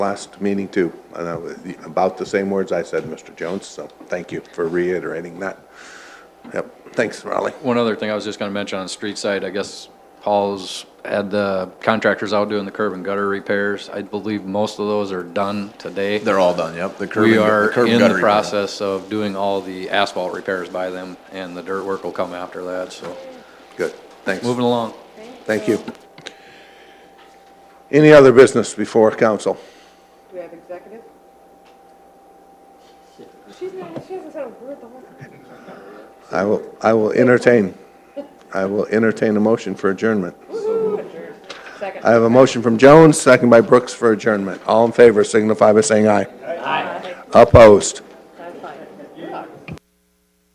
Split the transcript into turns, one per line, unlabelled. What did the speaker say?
last meeting too, and that was the- about the same words I said, Mr. Jones, so thank you for reiterating that. Yep, thanks, Raleigh.
One other thing I was just going to mention on the street side, I guess Paul's had the contractors out doing the curb and gutter repairs. I believe most of those are done today.
They're all done, yep. The curb
We
and-
are
curb and
in the
gutter repair.
process of doing all the asphalt repairs by them, and the dirt work will come after that, so
Good, thanks.
moving along.
Thank you. Any other business before council?
Do we have executive? She's not, she hasn't said a word the whole time.
I will, I will entertain, I will entertain a motion for adjournment.
Second.
I have a motion from Jones, second by Brooks for adjournment. All in favor signify by saying aye. Aye. Opposed?